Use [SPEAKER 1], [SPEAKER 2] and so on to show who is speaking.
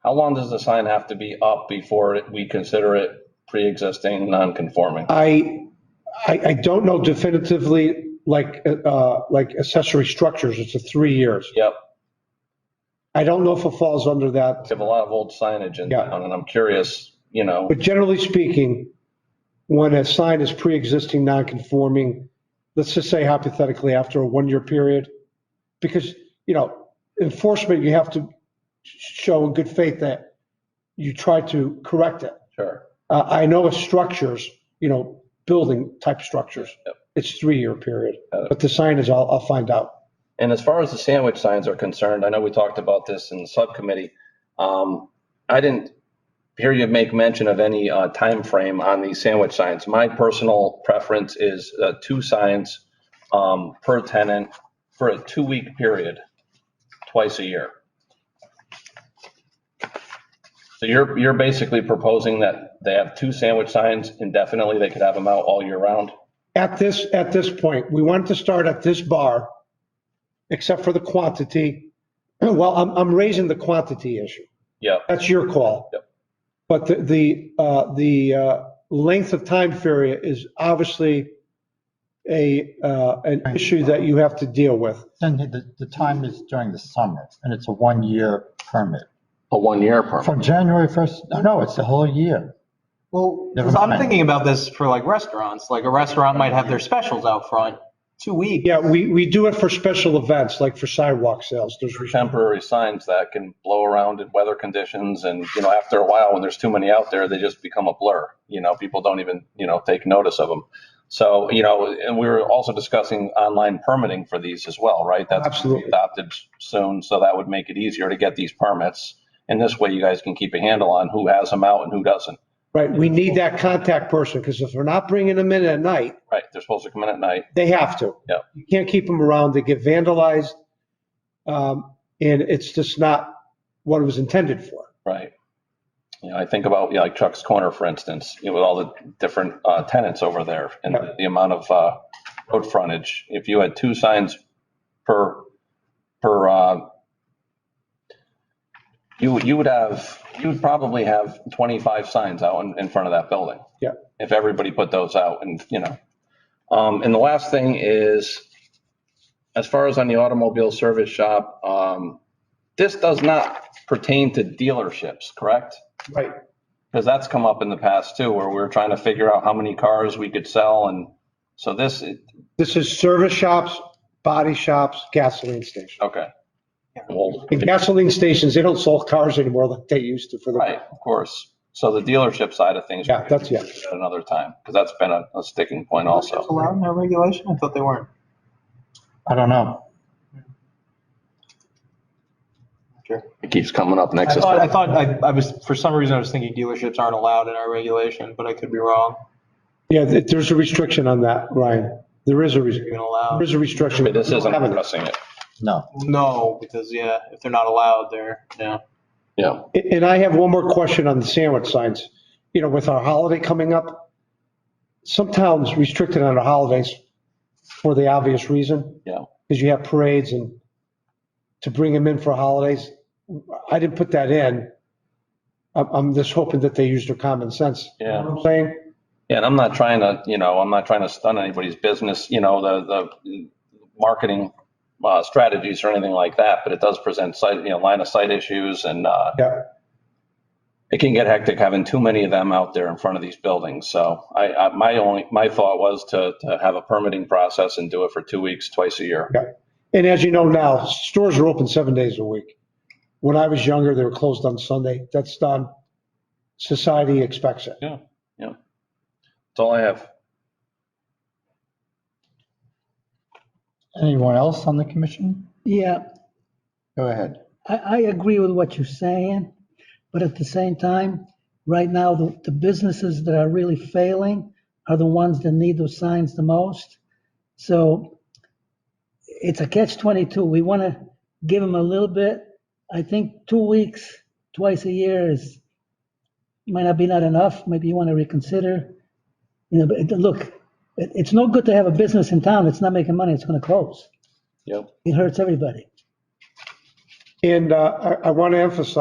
[SPEAKER 1] How long does the sign have to be up before it- we consider it pre-existing, non-conforming?
[SPEAKER 2] I, I, I don't know definitively, like, uh, like accessory structures, it's a three years.
[SPEAKER 1] Yep,
[SPEAKER 2] I don't know if it falls under that,
[SPEAKER 1] we have a lot of old signage in
[SPEAKER 2] Yeah.
[SPEAKER 1] town, and I'm curious, you know,
[SPEAKER 2] but generally speaking, when a sign is pre-existing non-conforming, let's just say hypothetically after a one-year period, because, you know, enforcement, you have to show in good faith that you try to correct it.
[SPEAKER 1] sure.
[SPEAKER 2] Uh, I know of structures, you know, building type structures.
[SPEAKER 1] Yep.
[SPEAKER 2] It's three-year period,
[SPEAKER 1] Got it.
[SPEAKER 2] but the sign is, I'll, I'll find out.
[SPEAKER 1] And as far as the sandwich signs are concerned, I know we talked about this in the subcommittee. Um, I didn't hear you make mention of any uh, frame on these sandwich signs. My personal preference is uh, two signs um, per tenant for a two-week period, twice a year. So you're, you're basically proposing that they have two sandwich signs indefinitely, they could have them out all year round?
[SPEAKER 2] At this, at this point, we wanted to start at this bar, except for the quantity. Well, I'm, I'm raising the quantity issue.
[SPEAKER 1] Yeah,
[SPEAKER 2] That's your call.
[SPEAKER 1] Yep.
[SPEAKER 2] But the, the, uh, the, uh, length of time period is obviously a, uh, an issue that you have to deal with.
[SPEAKER 3] Then the, the time is during the summer and it's a one-year permit.
[SPEAKER 1] a one-year permit.
[SPEAKER 3] From January 1st, no, no, it's the whole year.
[SPEAKER 4] Well,
[SPEAKER 3] Never
[SPEAKER 4] 'cause I'm
[SPEAKER 3] mind.
[SPEAKER 4] thinking about this for like restaurants, like a restaurant might have their specials out front, two weeks.
[SPEAKER 2] Yeah, we, we do it for special events, like for sidewalk sales. There's
[SPEAKER 1] temporary signs that can blow around in weather conditions and you know after a while when there's too many out there they just become a blur you know people don't even you know take notice of them so you know and we were also discussing online permitting for these as well right that's gonna be
[SPEAKER 2] Absolutely.
[SPEAKER 1] adopted soon so that would make it easier to get these permits and this way you guys can keep a handle on who has them out and who doesn't
[SPEAKER 2] Right, we need that contact person, because if we're not bringing them in at night,
[SPEAKER 1] right they're supposed to come in at night
[SPEAKER 2] they have to.
[SPEAKER 1] Yep.
[SPEAKER 2] You can't keep them around, they get vandalized. um, And it's just not what it was intended for.
[SPEAKER 1] Right. You know, I think about, you know, like Chuck's Corner, for instance, you know, with all the different uh, tenants over there and
[SPEAKER 2] Yeah.
[SPEAKER 1] the amount of uh, road frontage. If you had two signs per, per, uh, you, you would have, you would probably have 25 signs out in, in front of that building.
[SPEAKER 2] Yeah.
[SPEAKER 1] If everybody put those out and, you know. Um, And the last thing is, as far as on the automobile service shop, um, this does not pertain to dealerships, correct?
[SPEAKER 2] Right.
[SPEAKER 1] Because that's come up in the past too, where we were trying to figure out how many cars we could sell and so this,
[SPEAKER 2] This is service shops, body shops, gasoline stations.
[SPEAKER 1] okay. Well,
[SPEAKER 2] In gasoline stations, they don't sell cars anymore like they used to for the.
[SPEAKER 1] right, of course. So the dealership side of things.
[SPEAKER 2] Yeah, that's- yeah.
[SPEAKER 1] At another time, because that's been a, a sticking point
[SPEAKER 4] Is
[SPEAKER 1] also.
[SPEAKER 4] Allowed in that regulation? I thought they weren't.
[SPEAKER 3] I don't know.
[SPEAKER 4] Sure.
[SPEAKER 1] It keeps coming up
[SPEAKER 4] I
[SPEAKER 1] next.
[SPEAKER 4] thought, I thought, I, I was, for some reason, I was thinking dealerships aren't allowed in our regulation, but I could be wrong.
[SPEAKER 2] Yeah, th- there's a restriction on that, Ryan. There is a, res-
[SPEAKER 4] Even
[SPEAKER 2] there
[SPEAKER 4] allowed.
[SPEAKER 2] is a restriction.
[SPEAKER 1] But This isn't
[SPEAKER 2] Having it.
[SPEAKER 1] addressing it.
[SPEAKER 3] No.
[SPEAKER 4] No, because yeah, if they're not allowed, they're, yeah.
[SPEAKER 1] Yeah,
[SPEAKER 2] And I have one more question on the sandwich signs. You know, with our holiday coming up, some towns restrict it on the holidays for the obvious reason,
[SPEAKER 1] yeah.
[SPEAKER 2] because you have parades and to bring them in for holidays. I didn't put that in. I'm, I'm just hoping that they use their common sense. You know
[SPEAKER 1] Yeah.
[SPEAKER 2] what I'm Saying,
[SPEAKER 1] Yeah, and I'm not trying to, you know, I'm not trying to stun anybody's business, you know, the, the marketing uh, strategies or anything like that, but it does present sight, you know, line of sight issues and uh,
[SPEAKER 2] yeah,
[SPEAKER 1] it can get hectic having too many of them out there in front of these buildings. So I, I, my only, my thought was to, to have a permitting process and do it for two weeks, twice a year.
[SPEAKER 2] yeah. And as you know now, stores are open seven days a week. When I was younger, they were closed on Sunday. That's done. Society expects it.
[SPEAKER 1] Yeah, yeah. That's all I have.
[SPEAKER 3] Anyone else on the commission?
[SPEAKER 5] Yeah,
[SPEAKER 3] Go ahead.
[SPEAKER 5] I, I agree with what you're saying, but at the same time, right now, the, the businesses that are really failing are the ones that need those signs the most. So it's a catch 22. We want to give them a little bit. I think two weeks, twice a year is, might not be not enough. Maybe you want to reconsider. You know, but it- look, it, it's no good to have a business in town that's not making money. It's going to close.
[SPEAKER 1] Yep.
[SPEAKER 5] It hurts everybody.
[SPEAKER 2] And uh, I, I want to emphasize